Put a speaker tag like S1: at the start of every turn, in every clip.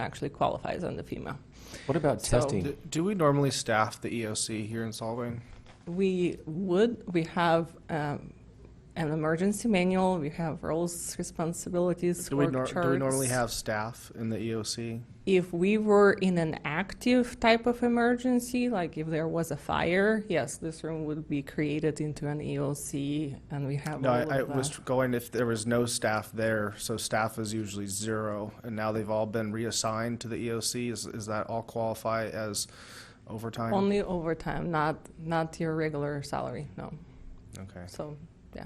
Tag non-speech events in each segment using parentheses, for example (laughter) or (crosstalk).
S1: actually qualifies under FEMA.
S2: What about
S1: So-
S2: testing?
S3: Do- Do we normally staff the EOC here in Solvang?
S1: We would, we have um, an emergency manual, we have roles, responsibilities,
S3: Do we
S1: work
S3: nor-
S1: charts.
S3: do we normally have staff in the E EOC?
S1: If we were in an active type of emergency, like if there was a fire, yes, this room would be created into an EOC and we have
S3: No,
S1: all
S3: I,
S1: of
S3: I
S1: that.
S3: was going if there was no staff there, so staff is usually zero, and now they've all been reassigned to the EOC. Is, is that all qualify as overtime?
S1: Only overtime, not, not your regular salary, no.
S3: Okay.
S1: So, yeah.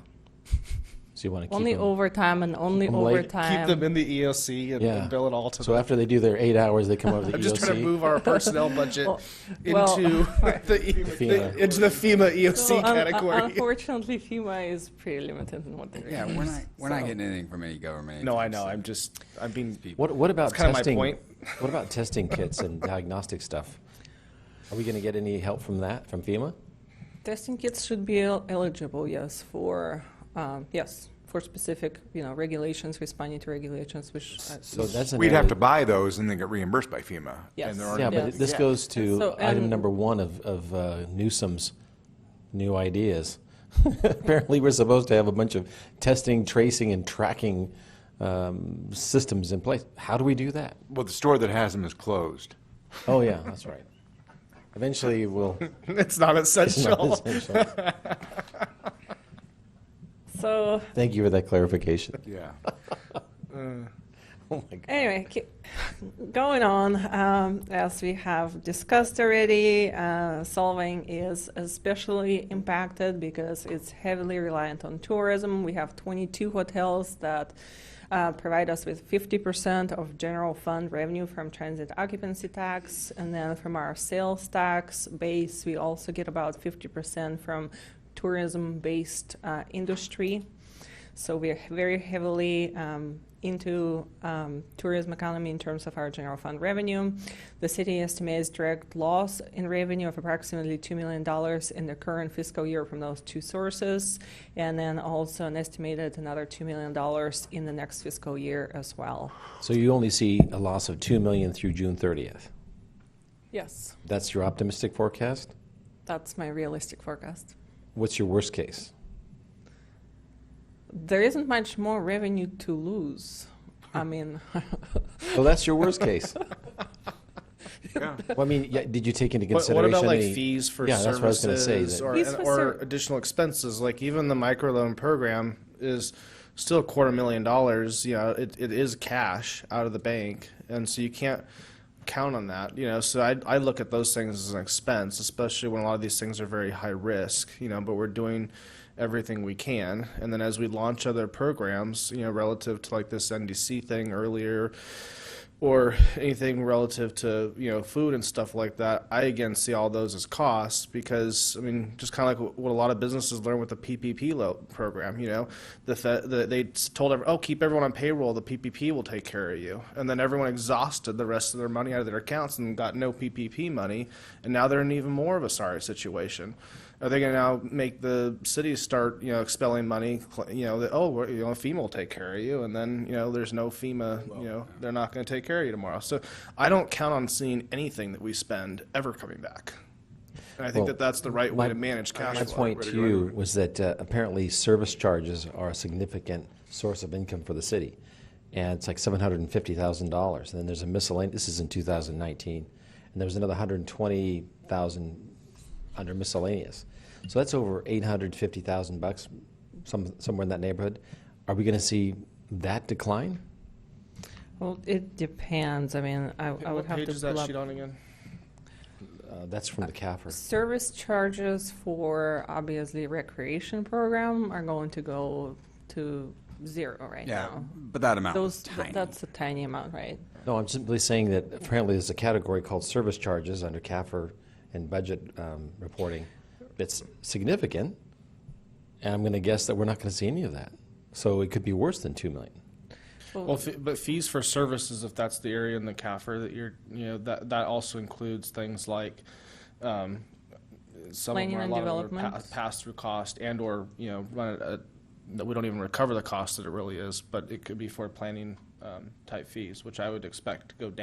S2: So you want to
S1: Only
S2: keep them?
S1: overtime and only
S2: Keep 'em late.
S1: overtime.
S3: Keep them in the EOC and,
S2: Yeah.
S3: and bill it all to
S2: So E
S3: them.
S2: after they do their eight hours, they
S3: (laughs)
S2: come over to the
S3: I'm just trying to
S2: EOC?
S3: move
S1: (laughs)
S3: our personnel budget
S1: well,
S3: into (laughs) the, E-
S2: FEMA.
S3: the into the FEMA EOC
S1: So, un- un-
S3: category. (laughs)
S1: uh, Unfortunately, FEMA is pretty limited in what they're.
S3: (laughs)
S4: Yeah, we're not, we're not
S1: So-
S4: getting anything from any government.
S3: no, I
S4: agency.
S3: know. I'm just. I'm being.
S2: What, what about
S3: That's kinda my
S2: testing?
S3: point.
S2: (laughs) What about testing kits and diagnostic stuff? Are we going to get any help from that, from FEMA?
S1: Testing kits should be el- eligible, yes, for, um, yes, for specific, you know, regulations, responding to regulations, which. uh,
S2: So that's an
S5: We'd have
S2: area-
S5: to buy those and then get reimbursed by FEMA.
S1: Yes.
S5: And there aren't
S2: Yeah,
S1: Yes.
S2: but this
S5: Yeah.
S2: goes
S1: So,
S2: to item
S1: um,
S2: number one of, of uh, Newsom's new ideas. (laughs) Apparently, we're supposed to have a bunch of testing, tracing, and tracking um, systems in place. How do we do that?
S5: Well, the store that has them is closed.
S2: Oh, yeah, that's right. Eventually,
S3: (laughs)
S2: we'll.
S3: (laughs) It's
S2: (laughs)
S3: not essential.
S1: So,
S2: Thank you for that clarification.
S5: Yeah.
S2: (laughs) Oh, my God.
S1: anyway, ki- going on, um, as we have discussed already, uh, Solvang is especially impacted because it's heavily reliant on tourism. We have 22 hotels that uh, provide us with 50% of general fund revenue from transit occupancy tax, and then from our sales tax base, we also get about 50% from tourism-based uh, industry. So we're very heavily um, into um, tourism economy in terms of our general fund revenue. The city estimates direct loss in revenue of approximately $2 million in the current fiscal year from those two sources, and then also an estimated another $2 million in the next fiscal year as well.
S2: So you only see a loss of 2 million through June 30th.
S1: Yes,
S2: That's your optimistic forecast?
S1: that's my realistic forecast.
S2: What's your worst case?
S1: There isn't much more revenue to lose.
S3: Hmm.
S1: I mean, (laughs)
S2: Well, that's your worst case.
S5: Yeah.
S2: Well, I mean, (laughs) yeah, did you take into
S3: What,
S2: consideration?
S3: what about like
S2: any-
S3: fees for
S2: yeah, that's what I was gonna say,
S3: services
S2: that-
S3: or,
S1: Fees
S3: and-
S1: for
S3: or
S1: ser-
S3: additional expenses? Like even the microloan program is still a quarter million dollars. You know, it, it is cash out of the bank, and so you can't count on that. You know, so I I look at those things as an expense, especially when a lot of these things are very high risk. You know, but we're doing everything we can and then as we launch other programs you know relative to like this ndc thing earlier or anything relative to you know food and stuff like that i again see all those as costs because i mean just kind of like what a lot of businesses learn with the ppp lo- program you know the, fe- the they s- told everyone oh keep everyone on payroll the ppp will take care of you and then everyone exhausted the rest of their money out of their accounts and got no ppp money and now they're in even more of a sorry situation are they going to now make the cities start, you know, expelling money? cl- You know, that oh, we're, you know, FEMA will take care of you, and then you know, there's no FEMA. You know, they're not going to take care of you tomorrow. So I don't count on seeing anything that we spend ever coming back. And I
S2: Well,
S3: think that that's the right way
S2: my-
S3: to manage cash
S2: My
S3: flow.
S2: point to you was that uh, apparently service charges are a significant source of income for the city. And it's like seven hundred and fifty thousand dollars. And then there's a miscellaneous, this is in two thousand nineteen, and there was another hundred and twenty thousand under miscellaneous. So that's over eight hundred fifty thousand bucks, some, somewhere in that neighborhood. Are we gonna see that decline?
S1: well, it depends. I mean, I, I would
S3: what
S1: have
S3: page
S1: to
S3: is that
S1: pull up-
S3: sheet on again?
S2: Uh, that's from the CAFR.
S1: Service charges for obviously recreation program are going to go to zero right
S4: Yeah,
S1: now.
S4: but that amount was
S1: Those
S4: tiny.
S1: that's a tiny amount, right?
S2: No, I'm simply saying that apparently there's a category called service charges under CAFR and budget um, reporting that's significant, and I'm going to guess that we're not going to see any of that. So it could be worse than two million.
S3: Well, fe- but fees for services, if that's the area in the CAFR that you're, you know, that, that also includes things like, um, some of
S1: Planning
S3: them are a
S1: and
S3: lot of them are pa-
S1: development.
S3: pass-through cost and or, you know, run it at, that we don't even recover the cost that it really is, but it could be for planning, um, type fees, which I would expect to go down.